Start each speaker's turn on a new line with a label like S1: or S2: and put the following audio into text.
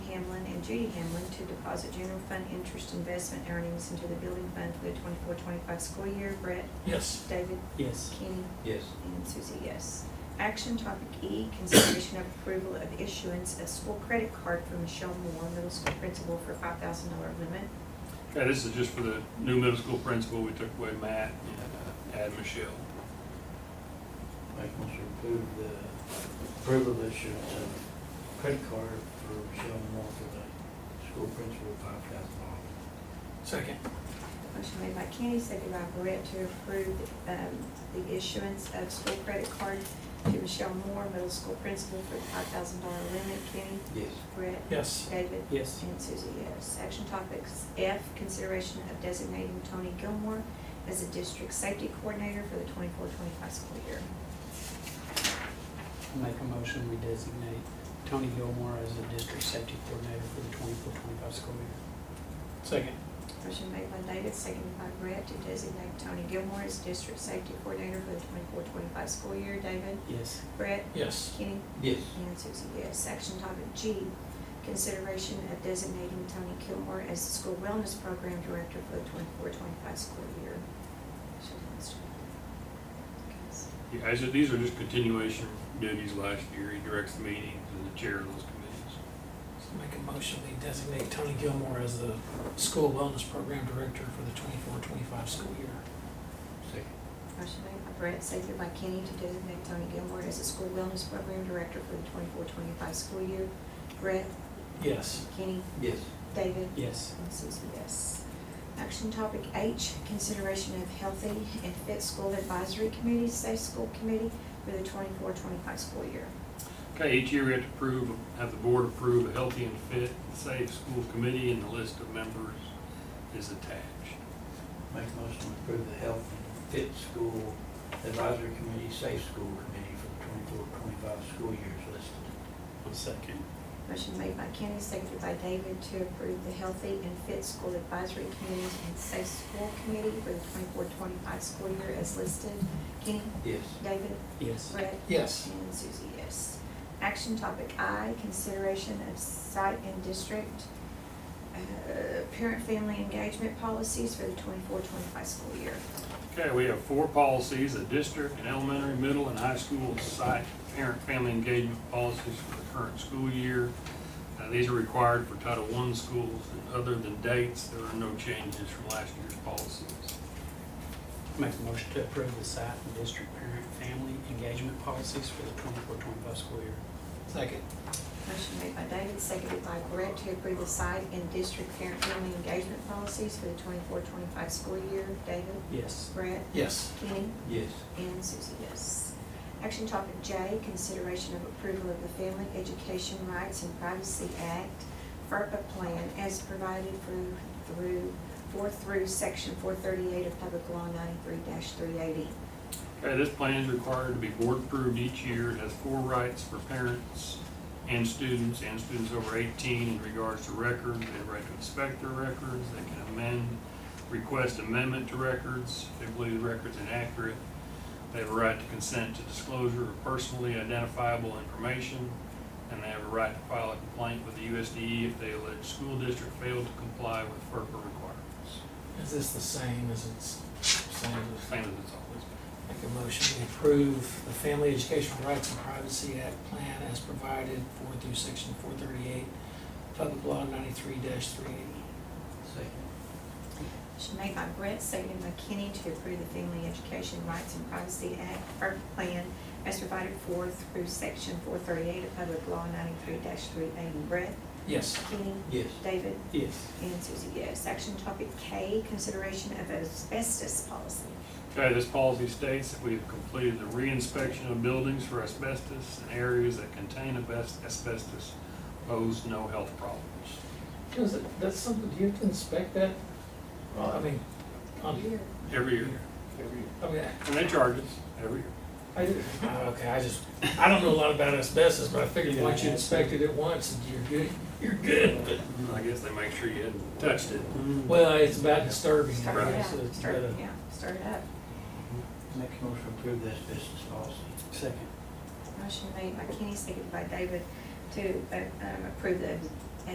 S1: appointing Judy Hamlin to deposit general fund interest investment earnings into the building fund for the 24-25 school year. Brett?
S2: Yes.
S1: David?
S2: Yes.
S1: Kenny?
S3: Yes.
S1: And Susie, yes. Action topic E, consideration of approval of issuance of school credit card for Michelle Moore, middle school principal for five thousand dollar limit.
S4: Okay, this is just for the new middle school principal. We took away Matt and uh, add Michelle.
S3: Make motion to approve the approval of issuance of credit card for Michelle Moore for the school principal, five thousand dollars.
S2: Second.
S1: Motion made by Kenny, seconded by Brett to approve, um, the issuance of school credit card to Michelle Moore, middle school principal for the five thousand dollar limit. Kenny?
S3: Yes.
S1: Brett?
S2: Yes.
S1: David?
S2: Yes.
S1: And Susie, yes. Action uh, topics F, consideration of designating Tony Gilmore as a district safety coordinator for the 24-25 school year.
S5: Make a motion, we designate Tony Gilmore as the district safety coordinator for the twenty-four, twenty-five school year.
S2: Second.
S1: Motion made by David, seconded by Brett, to designate Tony Gilmore as district safety coordinator for the 24-25 school year. David?
S5: Yes,
S1: Brett?
S2: Yes.
S1: Kenny?
S3: Yes.
S1: And Susie, yes. Action topic G, consideration of designating Tony Gilmore as the school wellness program director for the 24-25 school year. Should I start? Okay.
S4: Yeah, I said, these are just continuation duties last year. He directs the meetings and the chair of those committees.
S2: Make a motion, we designate Tony Gilmore as the school wellness program director for the twenty-four, twenty-five school year.
S3: Second.
S1: Motion made by Brett, seconded by Kenny to designate Tony Gilmore as the school wellness program director for the 24-25 school year. Brett,
S2: Yes.
S1: Kenny,
S3: Yes.
S1: David,
S5: yes,
S1: and Susie, yes. Action topic H, consideration of healthy and fit school advisory committee, safe school committee for the 24-25 school year.
S4: Okay, each year we have to approve, have the board approve a healthy and fit, safe school committee, and the list of members is attached.
S3: Make motion to approve the health and fit school advisory committee, safe school committee for the twenty-four, twenty-five school years listed.
S2: Second.
S1: Motion made by Kenny, seconded by David to approve the healthy and fit school advisory committee and safe school committee for the 24-25 school year as listed. Kenny,
S3: Yes.
S1: David,
S5: yes,
S1: Brett,
S2: Yes.
S1: and Susie, yes. Action topic I, consideration of site and district, uh, parent-family engagement policies for the 24-25 school year.
S4: Okay, we have four policies, a district, an elementary, middle, and high school site parent-family engagement policies for the current school year. Uh, These are required for Title I schools, and other than dates, there are no changes from last year's policies.
S5: make a motion to approve the site and district parent family engagement policies for the twenty-four, twenty-five school year.
S2: Second.
S1: Motion made by David, seconded by Brett to approve the site and district parent-family engagement policies for the 24-25 school year. David,
S5: Yes,
S1: Brett,
S2: Yes.
S1: Kenny,
S3: Yes.
S1: and Susie, yes. Action topic J, consideration of approval of the Family Education Rights and Privacy Act FERPA plan as provided through, through, for through section four thirty-eight of Public Law ninety-three three eighty.
S4: Okay, Uh, this plan is required to be board-approved each year. It has four rights for parents and students, and students over 18 in regards to records. They have right to inspect their records, they can amend, request amendment to records if they believe the record's inaccurate. They have a right to consent to disclosure of personally identifiable information, and they have a right to file a complaint with the USDE E if they allege school district failed to comply with FERPA requirements.
S2: Is this the same as it's, same as?
S4: Same as it's always been.
S2: Make a motion, we approve the Family Educational Rights and Privacy Act plan as provided for through section four thirty-eight, public law ninety-three three eighty.
S3: Second.
S1: Motion made by Brett, seconded by Kenny to approve the Family Education Rights and Privacy Act FERPA plan as provided for through section four thirty-eight of Public Law ninety-three three eighty. Brett,
S2: Yes.
S1: Kenny,
S3: Yes.
S1: David,
S5: yes,
S1: And Susie, yes. Action topic K, consideration of asbestos policy.
S4: Okay, this policy states that we have completed the reinspection of buildings for asbestos and areas that contain asbest- asbestos pose no health problems.
S2: Does it, that's something, do you have to inspect that? Well, I mean,
S1: Um,
S2: on,
S4: Every year.
S2: I mean,
S4: And they charge us every year.
S2: I, I- Uh, okay, I just, I don't know a lot about asbestos, but I figured once you inspected it once, you're good, you're good, but.
S4: I guess they make sure you hadn't touched it.
S2: Well, it's about disturbing,
S1: Start it
S2: right,
S1: up,
S2: so it's
S1: start,
S2: gotta-
S1: yeah, start it up.
S3: Make a motion to approve the asbestos policy.
S5: second,
S1: Motion made by Kenny, seconded by David to uh, um, approve the